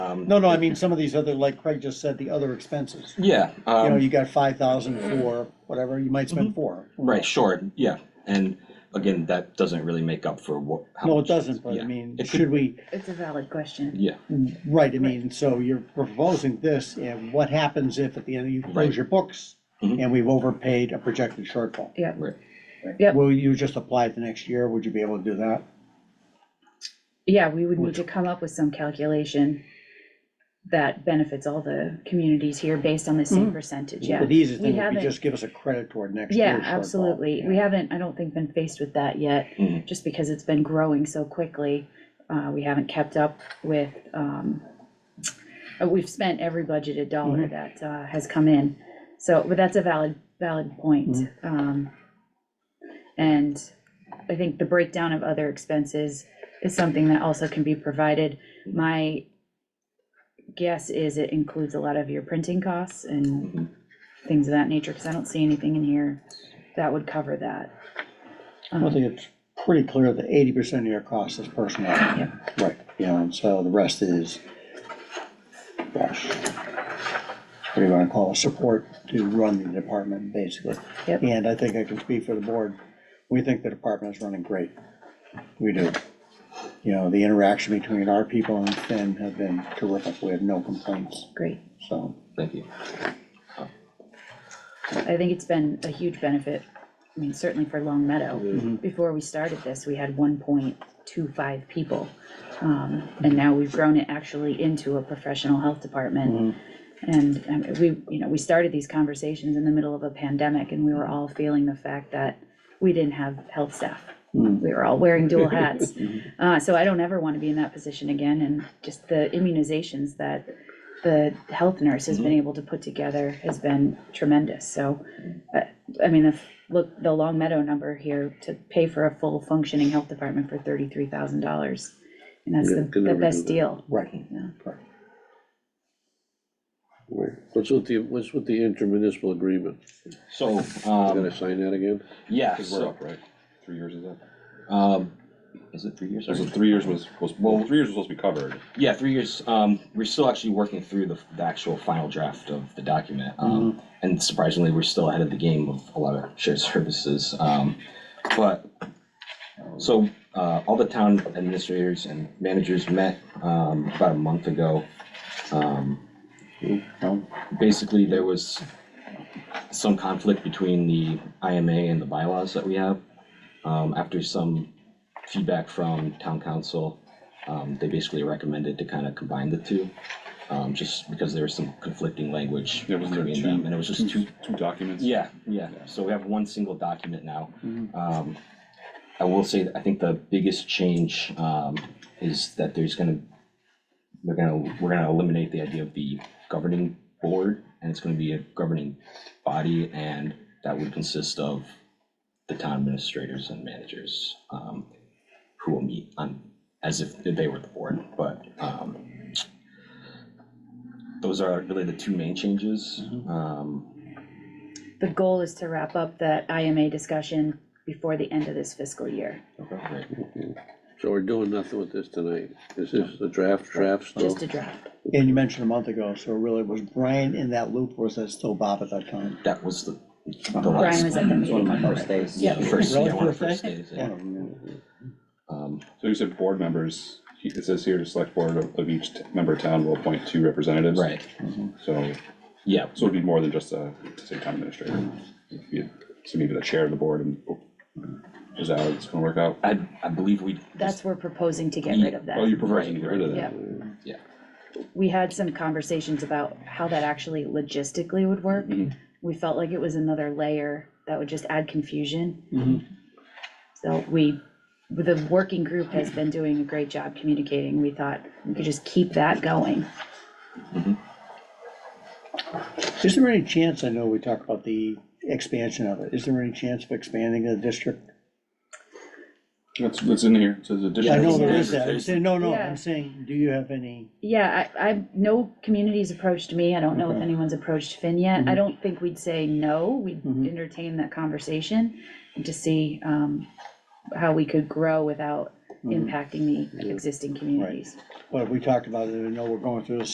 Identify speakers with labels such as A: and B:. A: um,
B: No, no, I mean, some of these other, like Craig just said, the other expenses.
A: Yeah,
B: You know,
A: um, mm-hmm.
B: you got five thousand for whatever, you might
C: Mm-hmm.
B: spend four.
A: right, sure, yeah, and again, that doesn't really make up for what. how
B: No, it
A: much-
B: doesn't, but I
A: yeah.
B: mean,
A: It could-
B: should we,
C: It's a valid question.
A: Yeah,
B: right, I mean, so you're proposing this, and what happens if at the end you
A: Right.
B: close your books?
A: Mhm.
B: And we've overpaid a projected shortfall?
C: Yeah,
A: right,
C: Yep.
B: Will you just apply it the next year? Would you be able to do that?
C: yeah, we would need to come up with some calculation that benefits all the communities here based on the same percentage, yeah.
B: The easiest
C: We
B: thing would be
C: haven't-
B: just give us a credit toward next year's
C: Yeah,
B: shortfall.
C: absolutely. We haven't, I don't think, been faced with that yet,
B: Mm-hmm.
A: Mhm.
C: just because it's been growing so quickly. Uh, we haven't kept up with, um, uh, we've spent every budgeted dollar
B: Mm-hmm.
C: that, uh, has come in. So, but that's a valid, valid point.
B: Mm-hmm.
C: Um, and I think the breakdown of other expenses is something that also can be provided. My guess is it includes a lot of your printing costs
A: Mhm.
B: Mm-hmm.
C: and things of that nature, because I don't see anything in here that would cover that.
B: I think it's pretty clear that eighty percent of your cost is personnel. Right, yeah, and so the rest is, gosh, what do you wanna call it, support to run the department, basically.
C: Yep.
B: And I think I can speak for the board, we think the department is running great, we do. You know, the interaction between our people and Finn have been terrific, we have no complaints,
C: Great.
B: so.
A: thank you.
C: I think it's been a huge benefit, I mean, certainly for Long Meadow. Before we started this, we had one point two five people. Um, and now we've grown it actually into a professional health department. And, um, we, you know, we started these conversations in the middle of a pandemic and we were all feeling the fact that we didn't have health staff.
B: Mm.
C: We were all wearing dual hats. Uh, so I don't ever want to be in that position again and just the immunizations that the health nurse has
D: Mm-hmm.
C: been able to put together has been tremendous, so. uh, I mean, the, f- look, the Long Meadow number here to pay for a full functioning health department for thirty-three thousand dollars. And that's the,
D: Yeah, could
C: the
D: never do
C: best
D: that.
C: deal.
B: Right,
C: Yeah.
D: Right. What's with the, what's with the intermunicipal agreement?
A: So,
D: You
A: um,
D: gonna sign that again?
A: yeah,
E: Because we're
A: so,
E: up, right? Three years is up.
A: um, is it three years?
E: So
A: Sorry.
E: three years was, was, well, three years was supposed to be covered.
A: Yeah, three years. Um, we're still actually working through the, the actual final draft of the document.
B: Mm-hmm.
A: Um, And surprisingly, we're still ahead of the game with a lot of shared services. Um, but so uh, all the town administrators and managers met um, about a month ago. Um,
B: no,
A: basically, there was some conflict between the IMA and the bylaws that we have. Um, after some feedback from town council, um, they basically recommended to kind of combine the two. Um, just because there was some conflicting language
E: Yeah, wasn't there
A: between
E: two-
A: them, and it was just two,
E: Two documents.
A: yeah, yeah, so we have one single document now. Um, I will say, that I think the biggest change, um, is that there's gonna, we're gonna, we're gonna eliminate the idea of the governing board, and it's gonna be a governing body, and that would consist of the town administrators and managers, um, who will meet on, as if they were the board, but, um, those are really the two main changes, um,
C: The goal is to wrap up that IMA discussion before the end of this fiscal year,
A: Right.
D: So we're doing nothing with this tonight. This is the draft, draft still?
C: just a draft.
B: and you mentioned a month ago, so really, was Brian in that loop, or was that still Bob at that time?
A: That was the, the
C: Brian
A: last.
C: was at the meeting.
A: Yeah, the first, yeah,
B: Really,
A: one of the first
B: first day?
A: days.
B: Yeah.
A: yeah. Um,
E: So you said board members, he- it says here, the select board of of each t- member town will appoint two representatives.
A: Right,
E: So,
A: yeah,
E: so it'd be more than just a, say, town administrator. If you- So maybe the chair of the board and, oh, is that how it's gonna work out?
A: I, I believe we.
C: That's, we're proposing to get rid of
E: Oh,
C: that.
E: you're proposing to get rid of
C: Yeah,
E: that?
C: we had some conversations about how that actually logistically would work.
E: Mhm.
C: We felt like it was another layer that would just add confusion.
B: Mhm.
C: So we, the working group has been doing a great job communicating. We thought we could just keep that going.
B: Is there any chance, I know we talked about the expansion of it, is there any chance of expanding the district?
E: That's, that's in here, it says
B: Yeah, I know
E: additional.
B: there is that, I'm saying, no, no,
C: Yeah.
B: I'm saying, do you have any,
C: Yeah, I, I, no communities approached me. I don't know if
B: Okay.
C: anyone's approached Finn yet. I don't think we'd say no. We'd
B: Mhm.
C: entertain that conversation to see, um, how we could grow without
B: Mhm.
C: impacting the existing communities.
B: But we talked about it, I know we're going through this